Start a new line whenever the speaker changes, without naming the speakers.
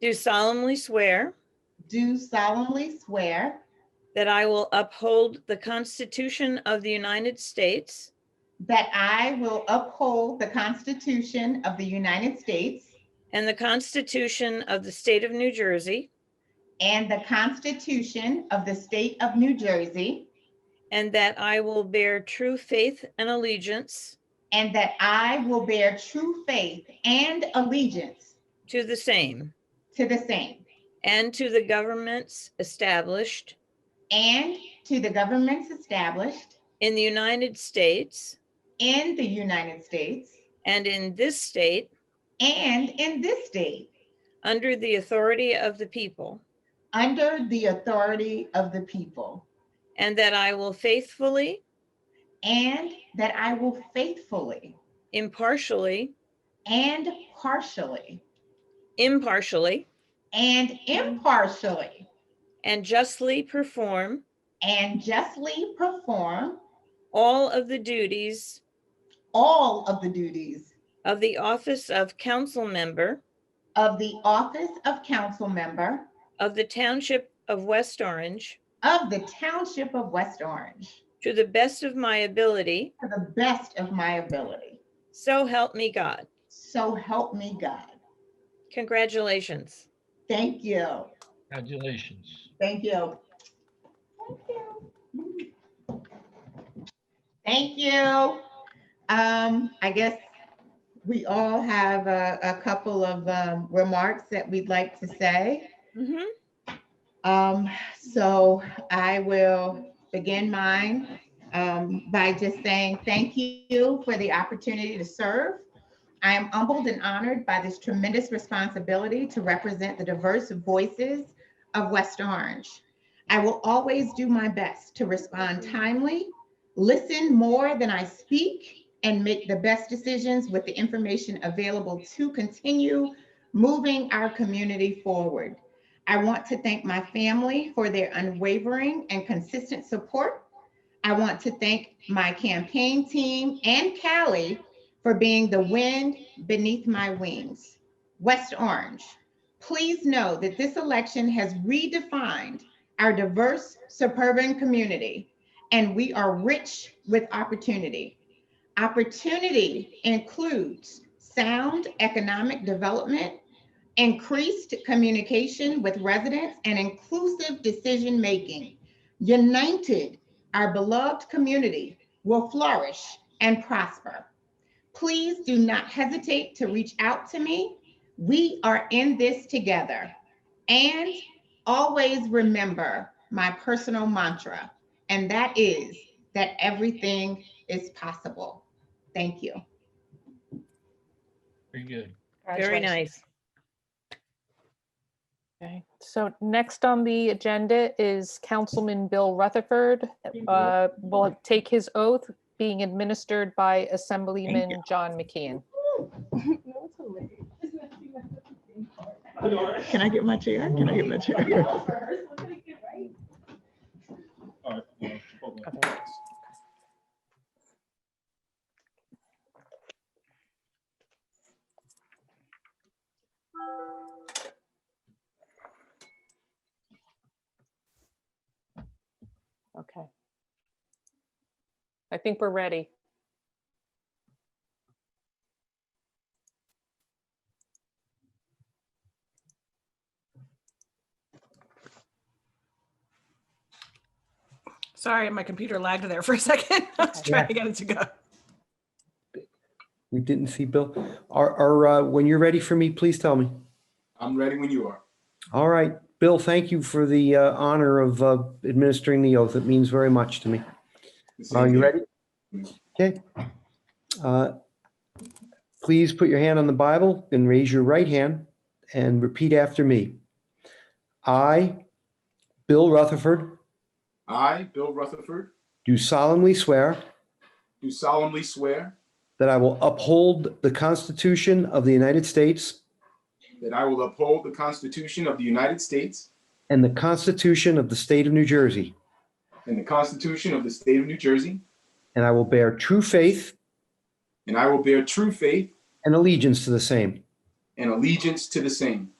do solemnly swear
do solemnly swear
that I will uphold the Constitution of the United States
that I will uphold the Constitution of the United States
and the Constitution of the State of New Jersey,
and the Constitution of the State of New Jersey,
and that I will bear true faith and allegiance
and that I will bear true faith and allegiance
to the same
to the same
and to the governments established
and to the governments established
in the United States
in the United States
and in this state
and in this state
under the authority of the people,
under the authority of the people,
and that I will faithfully,
and that I will faithfully
impartially,
and partially
impartially,
and impartially
and justly perform
and justly perform
all of the duties
all of the duties
of the office of council member
of the office of council member
of the Township of West Orange
of the Township of West Orange
to the best of my ability,
to the best of my ability.
so help me God.
So help me God.
Congratulations.
Thank you.
Congratulations.
Thank you. Thank you. Um, I guess we all have a, a couple of, um, remarks that we'd like to say.
Mhm.
Um, so I will begin mine, um, by just saying thank you for the opportunity to serve. I am humbled and honored by this tremendous responsibility to represent the diverse voices of West Orange. I will always do my best to respond timely, listen more than I speak, and make the best decisions with the information available to continue moving our community forward. I want to thank my family for their unwavering and consistent support. I want to thank my campaign team and Cali for being the wind beneath my wings. West Orange, please know that this election has redefined our diverse suburban community, and we are rich with opportunity. Opportunity includes sound economic development, increased communication with residents, and inclusive decision-making. United, our beloved community will flourish and prosper. Please do not hesitate to reach out to me. We are in this together. And always remember my personal mantra, and that is that everything is possible. Thank you.
Very good.
Very nice.
Okay, so next on the agenda is Councilman Bill Rutherford. uh, Will take his oath being administered by Assemblyman John McKeon.
Can I get my chair? Can I get my chair?
Okay. I think we're ready.
Sorry, my computer lagged there for a second. I was
Okay.
trying to get it to go.
We didn't see Bill. Are, are, uh, when you're ready for me, please tell me.
I'm ready when you are.
All right, Bill, thank you for the uh, honor of uh, administering the oath. It means very much to me. Are you ready? Okay. Uh, Please put your hand on the Bible and raise your right hand and repeat after me. I, Bill Rutherford,
I, Bill Rutherford,
do solemnly swear
do solemnly swear
that I will uphold the Constitution of the United States
that I will uphold the Constitution of the United States
and the Constitution of the State of New Jersey,
and the Constitution of the State of New Jersey,
and I will bear true faith
and I will bear true faith
and allegiance to the same,
and allegiance to the same,